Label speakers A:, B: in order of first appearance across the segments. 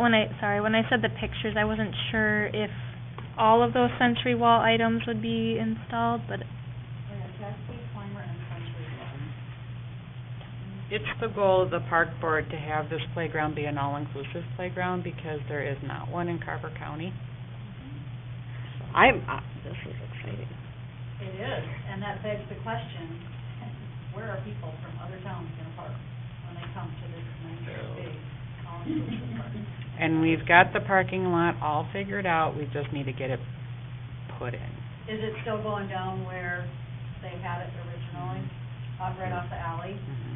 A: when I, sorry, when I said the pictures, I wasn't sure if all of those century wall items would be installed, but
B: It's the goal of the park board to have this playground be an all-inclusive playground because there is not one in Carver County.
C: I'm, uh, this is exciting.
D: It is, and that begs the question, where are people from other towns gonna park when they come to this nice big all-inclusive park?
B: And we've got the parking lot all figured out, we just need to get it put in.
D: Is it still going down where they had it originally, up right off the alley?
B: Mhm.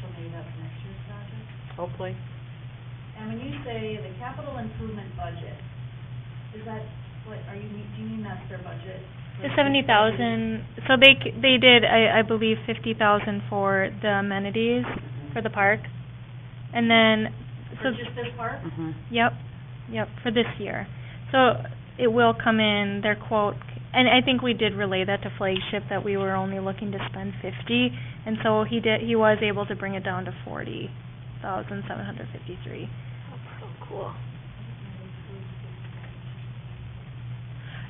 D: So maybe that's next year's project?
B: Hopefully.
D: And when you say the capital improvement budget, is that, what, are you, mean- do you mean that's their budget?
A: the seventy thousand, so they, c- they did, I, I believe, fifty thousand for the amenities for the park. And then, so,
D: For just this park?
B: Mhm.
A: yep, yep, for this year. So it will come in, their quote, and I think we did relay that to Flagship, that we were only looking to spend fifty. And so he did, he was able to bring it down to forty thousand seven hundred fifty-three.
C: So cool.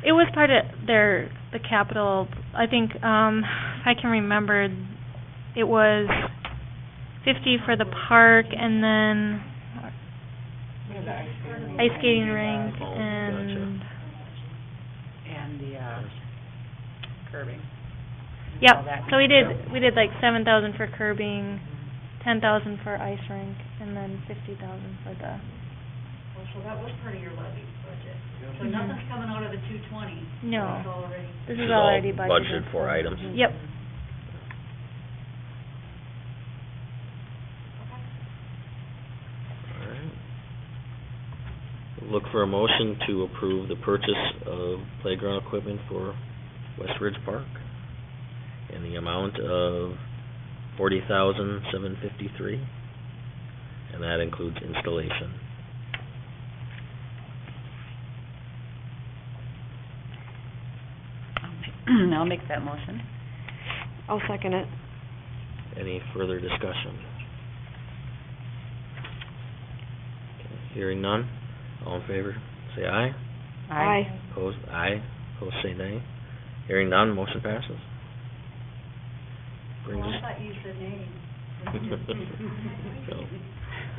A: It was part of their, the capital, I think, um, if I can remember, it was fifty for the park and then ice skating rink
E: Oh, gotcha.
A: and,
B: And the, uh, curbing.
A: yep.
B: All that.
A: So we did, we did like seven thousand for curbing, ten thousand for ice rink, and then fifty thousand for the,
D: Well, so that was part of your levy budget. So
A: Mhm.
D: nothing's coming out of the two twenty.
A: no,
D: It's already,
A: this
E: This
A: is
E: is all
A: already budgeted.
E: budgeted for items.
A: Yep.
E: Look for a motion to approve the purchase of playground equipment for West Ridge Park in the amount of forty thousand, seven fifty-three. And that includes installation.
B: I'll make that motion.
C: I'll second it.
E: Any further discussion? Okay, Hearing none, all in favor, say aye.
C: Aye.
E: Opposed, aye. Opposed, say nay. Hearing none, motion passes. Brings
D: well, I
E: us-
D: thought you said name.
E: So.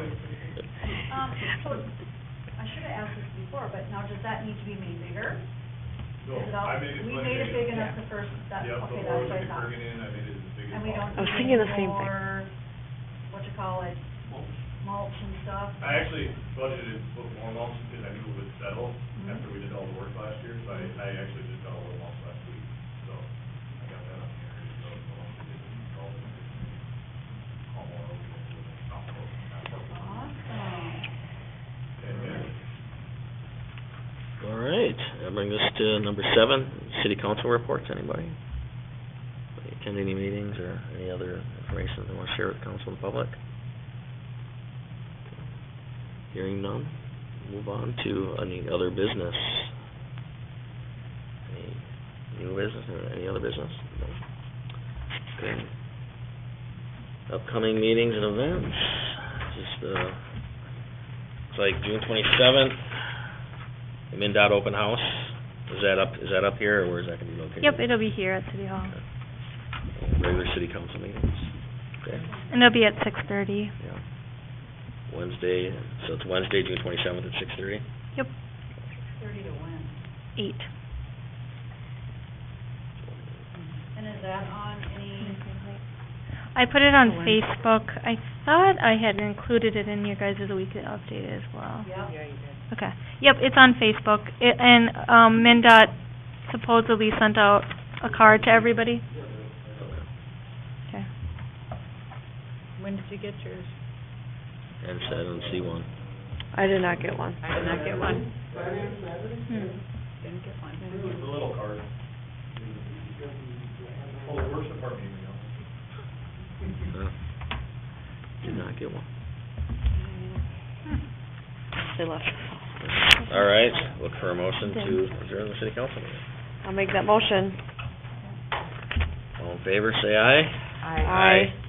D: Um, so, I should have asked this before, but now does that need to be made bigger?
F: No,
D: Is it all-
F: I made it.
D: We
F: like
D: made it big
B: yeah.
D: enough the first, that,
F: Yep,
D: okay,
F: the
D: that's
F: more
D: what
F: we
D: I
F: could
D: thought.
F: bring it in, I made it as big as
D: And we don't
C: I was
D: need
C: thinking the
D: any
C: same thing.
D: more, what you call it,
F: possible.
D: mulch and stuff?
F: I actually budgeted to put more mulch because I knew it would settle
D: Mhm.
F: after we did all the work last year, so I, I actually did all the mulch last week, so I got that on here, so it's all, it's all, all more over the top of
D: Awesome.
F: And then,
E: All right, that brings us to number seven, city council reports, anybody? Anybody Attend any meetings or any other information they want to share with council and public? Hearing none, move on to any other business. Any new business or any other business? No. Okay. Upcoming meetings and events, just, uh, it's like June twenty-seventh, the MinDOT open house, is that up, is that up here, or where is that gonna be located?
A: Yep, it'll be here at City Hall,
E: Regular city council meetings, okay,
A: and it'll be at six thirty.
E: yeah. Wednesday, so it's Wednesday, June twenty-seventh at six thirty?
A: Yep,
D: Thirty to win.
A: eight.
D: And is that on any,
A: I put it on
C: Oh, wow.
A: Facebook. I thought I had included it in your guys' weekly update as well.
D: yeah?
B: Yeah, you did.
A: Okay. Yep, it's on Facebook. It, and, um, MinDOT supposedly sent out a card to everybody. Okay.
B: When did you get yours?
E: And so I don't see one.
C: I did not get one.
B: I did not get one.
A: Hmm.
B: Didn't get one.
F: the little card. Oh, the worst department email.
E: No. Did not get one.
C: They left.
E: All right, look for a motion to adjourn the city council meeting.
C: I'll make that motion.
E: All in favor, say aye.
B: Aye.
C: Aye.